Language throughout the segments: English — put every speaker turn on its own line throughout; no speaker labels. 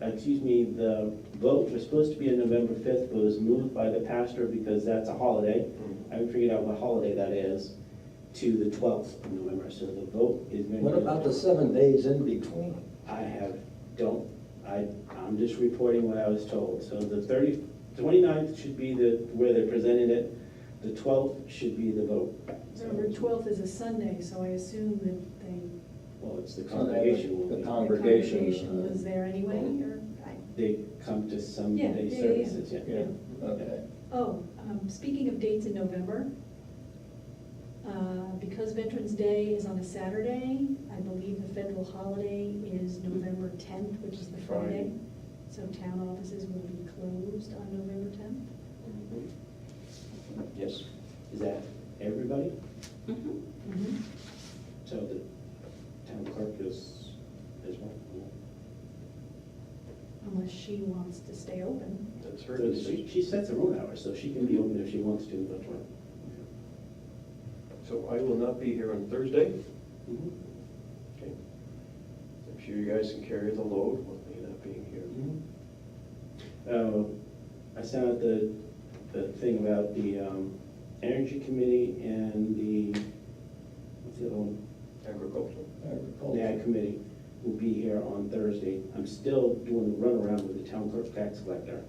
excuse me, the vote was supposed to be on November fifth, but was moved by the pastor because that's a holiday.
Mm-hmm.
I haven't figured out what holiday that is, to the twelfth of November, so the vote is. gonna be-
What about the seven days in between?
I have, don't, I, I'm just reporting what I was told. So the 30 29th should be the, where they presented it, the twelfth should be the vote.
November twelfth is a Sunday, so I assume that they,
Well, it's the
Con-
congregation uh,
The
will,
the congregation
congregation.
was there anyway, or, I,
be- they come to
Yeah, yeah,
Sunday
yeah, yeah.
services, yeah.
uh, Yeah, okay.
oh, um, speaking of dates in November, uh, because Veterans Day is on a Saturday, I believe the federal holiday is November tenth, which is the Friday.
Friday.
So town offices will be closed on November tenth.
Yes. Is that everybody?
Mm-hmm.
So the town clerk is, is one.
Unless she wants to stay open.
That's her
So
decision.
she, she sets her own hours, so she can be
Mhm.
open if she wants to, but.
So I will not be here on Thursday.
Mhm.
Okay. I'm sure you guys can carry the load with me not being here.
Oh, I sent out the, the thing about the, um, energy committee and the, what's the other one?
Agricultural.
NAG
Agriculture.
committee will be here on Thursday. I'm still doing the runaround with the town clerk tax collector.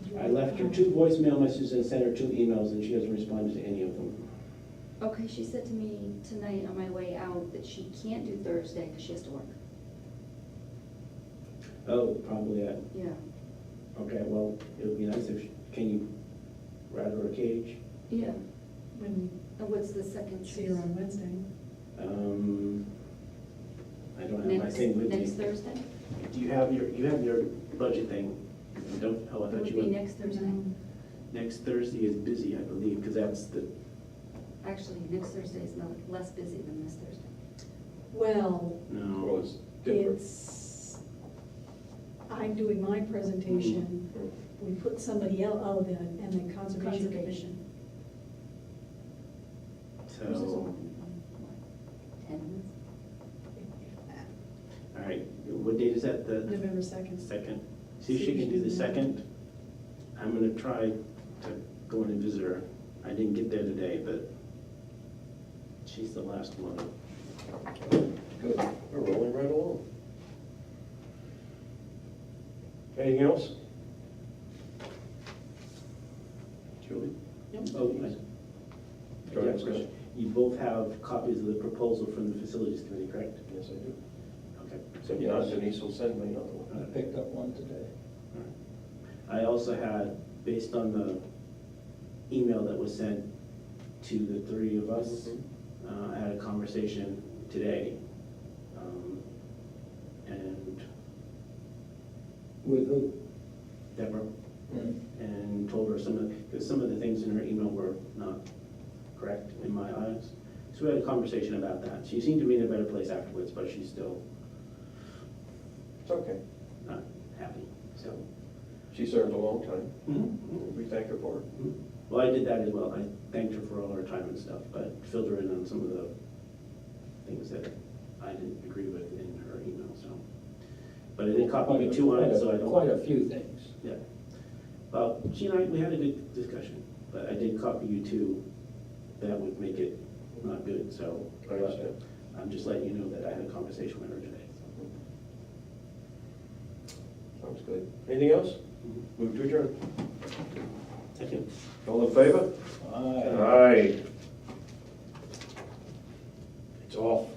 Would you
I
like-
left her two voicemail messages and sent her two emails and she hasn't responded to any of them.
Okay, she said to me tonight on my way out that she can't do Thursday because she has to work.
Oh, probably, I-
Yeah.
okay, well, it would be nice if, she- can you rat her a cage?
Yeah.
When
And what's the second
we see her
choice?
on Wednesday.
Um, I don't have my
Next,
thing with me.
next Thursday?
Do you have your, you have your budget thing? You Don't, oh, I
It
thought
would
you
be
went.
next Thursday.
Um,
Next Thursday is busy, I believe, because that's the,
Actually, next Thursday is not, less busy than this Thursday.
Well,
Well,
no.
it's different.
it's, I'm doing my presentation, we put somebody else, oh, the, and the Conservation
Conservation.
Commission.
Oh.
Hers is
So,
open on, what, Ten minutes?
all right, what date is that, the
November second.
second? See if she can do the second. I'm gonna try to go in and visit her. I didn't get there today, but she's the last one.
Good. We're rolling right along. Anything else? Julie?
Oh, I- yeah,
Go ahead, Scott.
You both have copies of the proposal from the facilities committee, correct?
Yes, I do.
Okay.
So yeah, Denise will send me another
All
one.
I
right.
picked up one today.
I also had, based on the email that was sent to the three of us,
Mhm.
uh, I had a conversation today. um, And
With who?
Deborah, and told her some of, because some of the things in her email were not correct in my eyes. So we had a conversation about that. She seemed to be in a better place afterwards, but she's still
It's okay.
not happy, so.
She served a long time.
Mm-hmm.
mhm.
We thank her for it.
Well, I did that as well. I thanked her for all her time and stuff, but filled her in on some of the things that I didn't agree with in her email, so. But I did copy you two on it, so I don't.
Quite a few things.
Yeah. Well, she and I, we had a good discussion, but I did copy you two. That would make it not good, so.
I understand.
I'm just letting you know that I had a conversation with her today.
Sounds good. Anything else? Move to adjourn.
Thank you.
All in favor?
Aye.
Aye. It's off.